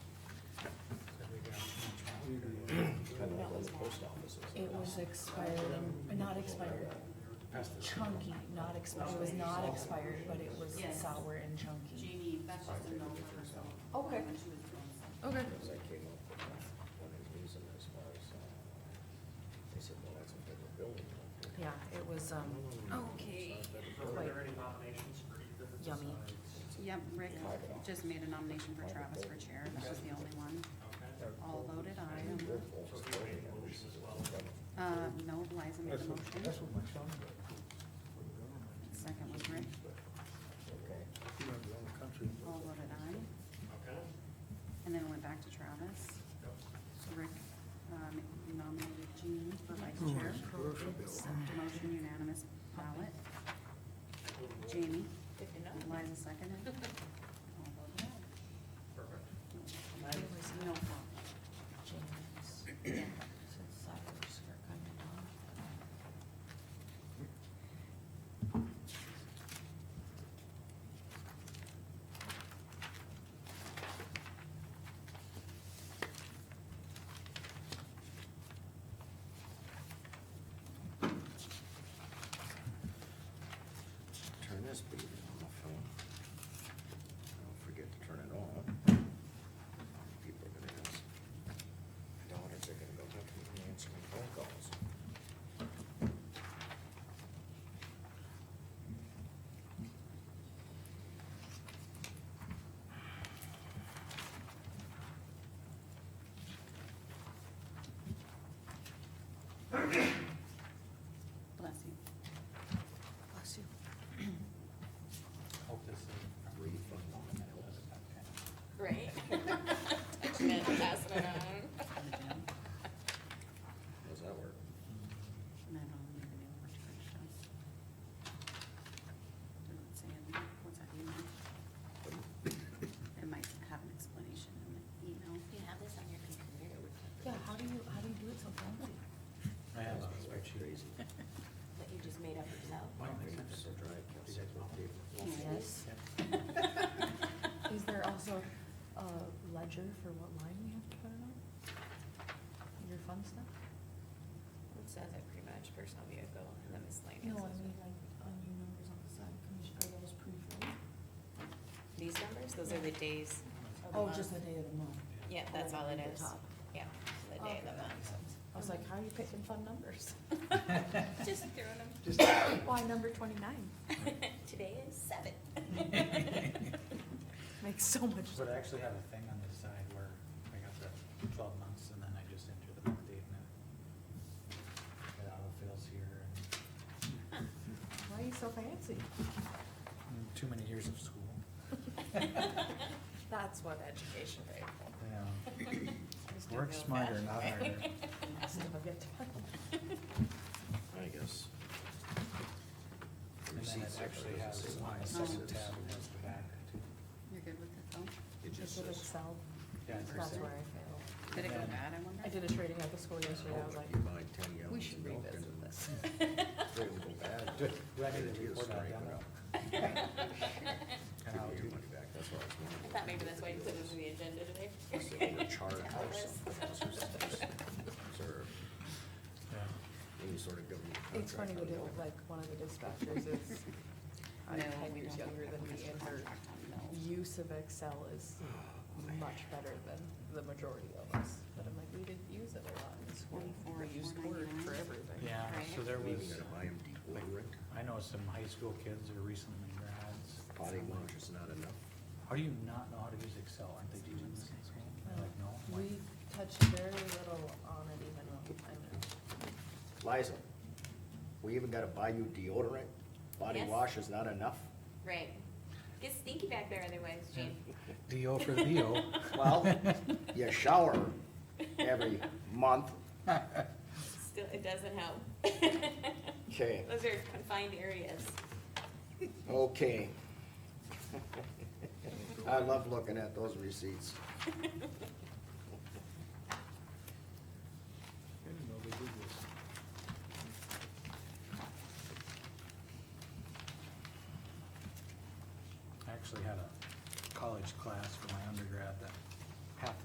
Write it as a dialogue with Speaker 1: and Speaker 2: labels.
Speaker 1: post office or something.
Speaker 2: It was expired, and- not expired,
Speaker 1: Past the-
Speaker 2: chunky, not expired, it was not expired, but it was sour and chunky.
Speaker 3: Jamie, that's just a known person.
Speaker 2: Okay.
Speaker 3: When she was growing up.
Speaker 2: Okay.
Speaker 1: Because I came up with that, one of the reasons as far as, uh, they said, well, that's a federal building.
Speaker 2: Yeah, it was, um,
Speaker 3: Okay.
Speaker 4: So were there any nominations for either
Speaker 2: Yummy.
Speaker 4: besides-
Speaker 3: Yep, Rick just made a nomination for Travis for chair, that was the only one.
Speaker 4: Okay.
Speaker 3: All voted aye. on
Speaker 1: They're
Speaker 3: that.
Speaker 1: almost
Speaker 4: So he
Speaker 1: building
Speaker 4: made a
Speaker 1: on this.
Speaker 4: motion as well.
Speaker 3: Uh, no, Liza made the motion,
Speaker 5: That's what my son did. for the government.
Speaker 3: second was Rick,
Speaker 1: Okay.
Speaker 5: He went around the country.
Speaker 3: all voted aye,
Speaker 4: Okay.
Speaker 3: and then went back to Travis. Rick, um, nominated Jean for vice chair. Motion unanimous ballot. Jamie, Liza seconded. All voted aye.
Speaker 4: Perfect.
Speaker 2: it was
Speaker 3: No problem.
Speaker 2: James,
Speaker 3: Yeah.
Speaker 2: said sours for kind of dog.
Speaker 1: Turn this bead off. huh? Don't forget to turn it off. People are gonna ask. My daughters are gonna go, how come you don't answer my phone calls?
Speaker 3: Bless you.
Speaker 2: Bless you.
Speaker 4: Hope this is.
Speaker 6: Right. Jim passing it on.
Speaker 1: How's that work?
Speaker 3: And then I'll leave the other direction. Doesn't say in there. what's that email? It might have an explanation in the email.
Speaker 6: You have this on your computer?
Speaker 2: Yeah, how do you, how do you do it so fancy?
Speaker 4: I have a
Speaker 1: Crazy.
Speaker 6: That you just made up yourself?
Speaker 1: Papers will drive Kelsey crazy.
Speaker 2: Yes. Is there also a ledger for what line we have to put it on? Your fun stuff?
Speaker 6: It says it pretty much, personal vehicle and then miscellaneous.
Speaker 7: No, I mean, like, on your numbers on the side, commission, are those pre-filled?
Speaker 6: These numbers, those are the days of the
Speaker 7: Oh,
Speaker 6: month.
Speaker 7: just the day of the month.
Speaker 6: Yeah,
Speaker 3: Oh,
Speaker 6: that's all it
Speaker 7: At the
Speaker 6: is.
Speaker 7: top.
Speaker 6: Yeah, the day of
Speaker 7: Okay,
Speaker 6: the
Speaker 7: that makes
Speaker 6: month.
Speaker 7: sense. I was like, how are you picking fun numbers?
Speaker 6: Just throwing them.
Speaker 5: Just, I
Speaker 7: Why, number twenty-nine
Speaker 6: Today is seven.
Speaker 7: makes so much
Speaker 8: But I actually have a thing on the side where I got the twelve months and then I just enter the month date and it- it autofills here
Speaker 7: Why are you so fancy?
Speaker 8: and too many years of school.
Speaker 6: That's what education paid for.
Speaker 8: Yeah.
Speaker 6: Just a
Speaker 8: Work
Speaker 6: real
Speaker 8: smarter,
Speaker 6: fashion
Speaker 8: not
Speaker 6: way.
Speaker 8: harder.
Speaker 1: I guess.
Speaker 8: And then it actually has my second tab has the back.
Speaker 3: You're good with it though?
Speaker 1: It just
Speaker 2: Is it
Speaker 1: says.
Speaker 2: Excel?
Speaker 8: Yeah, it's
Speaker 2: That's
Speaker 8: Excel.
Speaker 2: where I failed.
Speaker 3: Did it go bad, I wonder?
Speaker 2: I did a trading at the school yesterday, I was
Speaker 1: "Oh,
Speaker 2: like,
Speaker 1: if You buy ten
Speaker 2: we
Speaker 1: gallons
Speaker 2: should
Speaker 1: of milk and
Speaker 2: revisit this.
Speaker 1: they will go bad.
Speaker 8: Do do I need
Speaker 1: Guarantee
Speaker 8: to
Speaker 1: you
Speaker 8: report on
Speaker 1: scrape it
Speaker 8: demo?
Speaker 1: up.
Speaker 8: And I'll
Speaker 1: Give you
Speaker 8: do-
Speaker 1: your money back, that's what I was
Speaker 6: I
Speaker 1: wondering.
Speaker 6: thought maybe that's why you put this on the agenda today.
Speaker 1: Must have been a charge
Speaker 6: To
Speaker 1: or
Speaker 6: help us.
Speaker 1: something, that's just- just observe
Speaker 8: Yeah.
Speaker 1: any sort of government
Speaker 2: It's funny
Speaker 1: contract
Speaker 2: to do,
Speaker 1: on that.
Speaker 2: like, one of the dispatchers is uh,
Speaker 3: No,
Speaker 2: ten
Speaker 3: we
Speaker 2: years
Speaker 3: don't
Speaker 2: younger
Speaker 3: have
Speaker 2: than me,
Speaker 3: a
Speaker 2: and her
Speaker 3: contract on milk.
Speaker 2: use of Excel is
Speaker 1: Oh,
Speaker 2: much better than the majority of us. But I'm like, we didn't use it a lot in school. We
Speaker 3: Twenty-four,
Speaker 2: used Word for
Speaker 3: 499.
Speaker 2: everything.
Speaker 8: Yeah, so there
Speaker 1: Maybe
Speaker 8: was,
Speaker 1: gotta buy 'em deodorant.
Speaker 8: I know some high school kids who are recently grads.
Speaker 1: Body wash is not enough.
Speaker 8: How do you not know how to use Excel? Aren't they teaching this in school? They're Like, no.
Speaker 2: We touched very little on it even, when I mean,
Speaker 1: Liza, we even gotta buy you deodorant? Body
Speaker 6: Yes.
Speaker 1: wash is not enough?
Speaker 6: Right. Get stinky back there otherwise, Jane.
Speaker 8: Leo for Leo.
Speaker 1: Well, you shower every month.
Speaker 6: Still, it doesn't help.
Speaker 1: Okay,
Speaker 6: Those are confined areas.
Speaker 1: okay. I love looking at those receipts.
Speaker 5: didn't know they did this.
Speaker 8: I actually had a college class for my undergrad that